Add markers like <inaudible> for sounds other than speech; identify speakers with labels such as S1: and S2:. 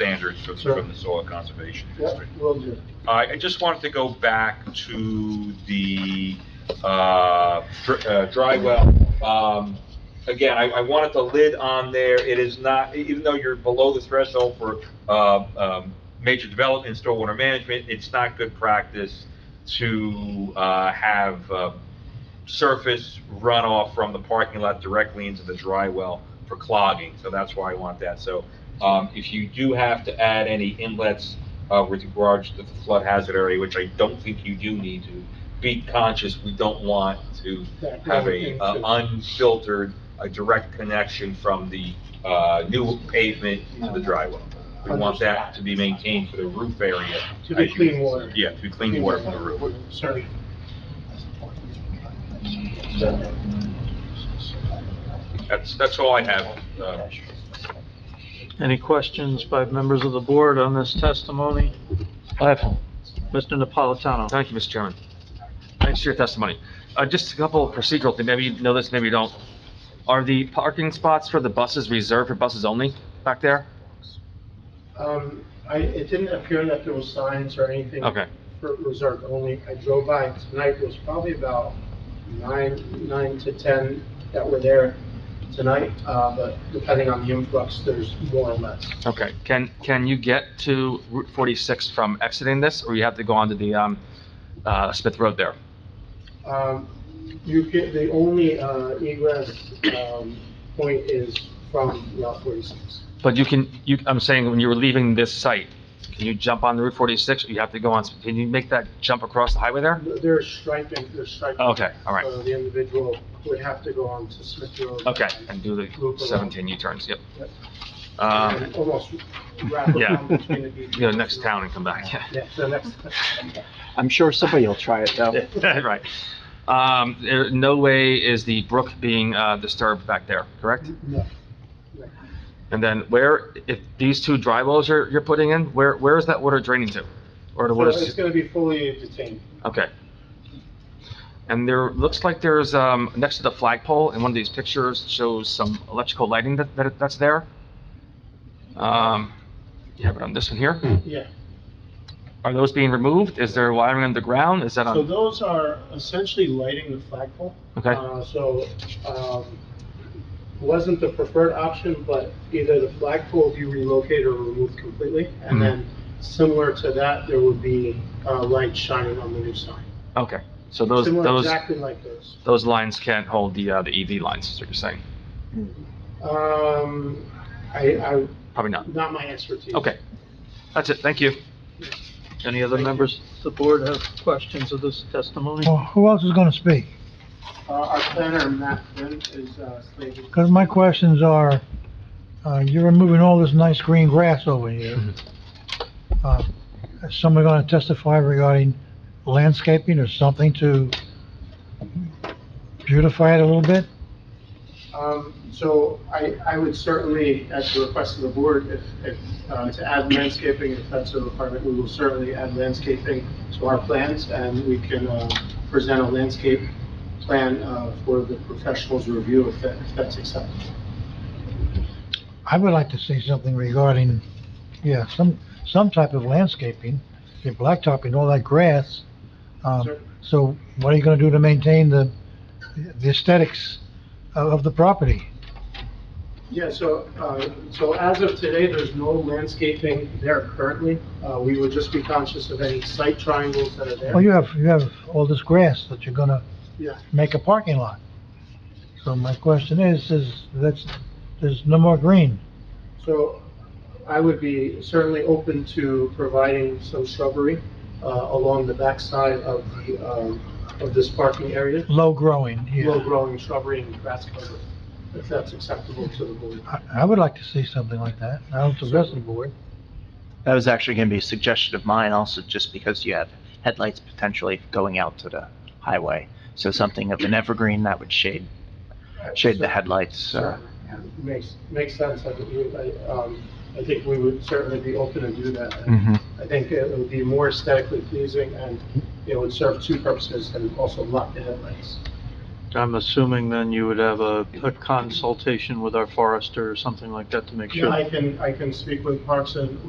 S1: standards for-
S2: Sure.
S1: from the Soil Conservation
S2: Yeah,
S1: District.
S2: will do.
S1: I I just wanted to go back to the uh, dr- uh, dry well. Um, Again, I I wanted the lid on there. It is not, e- even though you're below the threshold for uh, um, major development, stormwater management, it's not good practice to uh, have uh, surface runoff from the parking lot directly into the dry well for clogging. So that's why I want that. So um, if you do have to add any inlets uh, with regards to the flood hazard area, which I don't think you do need to, be conscious, we don't want to
S2: That
S1: have
S2: going
S1: a
S2: into-
S1: uh, unfiltered, a direct connection from the uh, new pavement to the dry well. We want that to be maintained for the roof area.
S2: To be
S1: as you-
S2: clean water.
S1: Yeah, to be clean water for the roof.
S2: Sorry.
S1: That's, that's all I have. uh,
S3: Any questions by members of the board on this testimony?
S4: I have,
S3: Mr. Napolitano?
S4: Oh, thank you, Mr. Chairman. Thanks for your testimony. Uh, just a couple of procedural things, maybe you know this, maybe you don't. Are the parking spots for the buses reserved for buses only back there?
S2: Um, I, it didn't appear that there was signs or anything.
S4: Okay.
S2: For reserve only. I drove by tonight, there was probably about nine, nine to 10 that were there tonight, uh, but depending on the influx, there's more or less.
S4: Okay, can, can you get to Route 46 from exiting this, or you have to go onto the, um, uh, Smith Road there?
S2: Um, you get, the only, uh, egress, um, point is from Route 46.
S4: But you can, you, I'm saying when you were leaving this site, can you jump on Route 46, or you have to go on, can you make that jump across the highway there?
S2: They're striping, they're striping.
S4: Okay, all right.
S2: So the individual would have to go on to Smith Road.
S4: Okay, and do the 17 U-turns, yep. Um,
S2: And Almost wrap around
S4: yeah.
S2: between the beaches.
S4: <laughs> go to next town and come back, <laughs> yeah.
S2: Yeah, so next,
S5: I'm sure somebody will try it, <laughs> though.
S4: Right. Um, there, no way is the brook being, uh, disturbed back there, correct?
S2: no,
S4: And then where, if these two dry wells you're, you're putting in, where, where is that water draining to? Or the
S2: so
S4: water's
S2: it's gonna be fully detained.
S4: Okay. And there, looks like there's, um, next to the flagpole, in one of these pictures, shows some electrical lighting that, that, that's there. Um, you have it on this one here.
S2: Yeah,
S4: Are those being removed? Is there wiring underground? Is that
S2: so
S4: on?
S2: those are essentially lighting the flagpole.
S4: Okay.
S2: Uh, So, um, wasn't the preferred option, but either the flagpole be relocated or removed completely. And
S4: Mhm.
S2: then similar to that, there would be uh, lights shining on the new sign.
S4: Okay, so those,
S2: Similar,
S4: those,
S2: Exactly like those.
S4: those lines can't hold the, uh, the EV lines, is what you're saying?
S2: Um, I, I,
S4: Probably not.
S2: not my expertise.
S4: Okay, that's it, thank you.
S3: Any other members of the board have questions of this testimony?
S6: Well, who else is gonna speak?
S2: Uh, our planner, Matt Flynn, is, uh, slated.
S6: Because my questions are, uh, you're removing all this nice green grass over here. Uh, Is someone gonna testify regarding landscaping or something to beautify it a little bit?
S2: Um, so I, I would certainly, at the request of the board, if, if, uh, to add landscaping, if that's a requirement, we will certainly add landscaping to our plans, and we can, uh, present a landscape plan, uh, for the professionals' review if that, if that's acceptable.
S6: I would like to see something regarding, yeah, some, some type of landscaping, you're blacktopping all that grass. Um,
S2: Sure.
S6: so what are you gonna do to maintain the, the aesthetics of, of the property?
S2: Yeah, so, uh, so as of today, there's no landscaping there currently. Uh, we would just be conscious of any site triangles that are there.
S6: Well, Oh, you have, you have all this grass that you're gonna
S2: Yeah.
S6: make a parking lot. So my question is, is that's, there's no more green.
S2: So I would be certainly open to providing some shrubbery uh, along the backside of the, um, of this parking area,
S6: Low growing here.
S2: low-growing shrubbery and grass cover, if that's acceptable to the board.
S6: I, I would like to see something like that. I don't suggest the board.
S5: That was actually going to be a suggestion of mine also, just because you have headlights potentially going out to the highway. So something of an evergreen that would shade, shade the headlights. uh,
S2: Makes, makes sense. I think we- I, um, I think we would certainly be open to do that.
S5: mhm.
S2: I think it would be more aesthetically pleasing and it would serve two purposes and also block the headlights.
S3: I'm assuming then you would have a, a consultation with our forester or something like that to make sure.
S2: I can, I can speak with Parks and